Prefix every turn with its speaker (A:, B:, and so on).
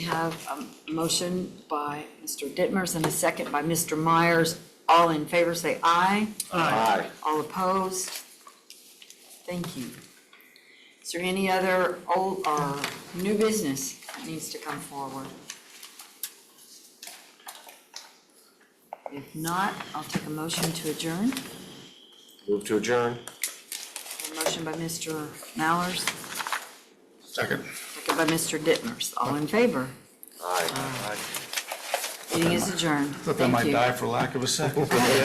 A: We have a motion by Mr. Dittmers and a second by Mr. Myers. All in favor, say aye.
B: Aye.
A: All opposed? Thank you. Is there any other old or new business that needs to come forward? If not, I'll take a motion to adjourn.
B: Move to adjourn.
A: A motion by Mr. Mallers,
B: Second.
A: second by Mr. Dittmers. All in favor?
B: Aye.
A: Meeting is adjourned.
C: Thought that might
A: Thank you.
C: die for lack of a second.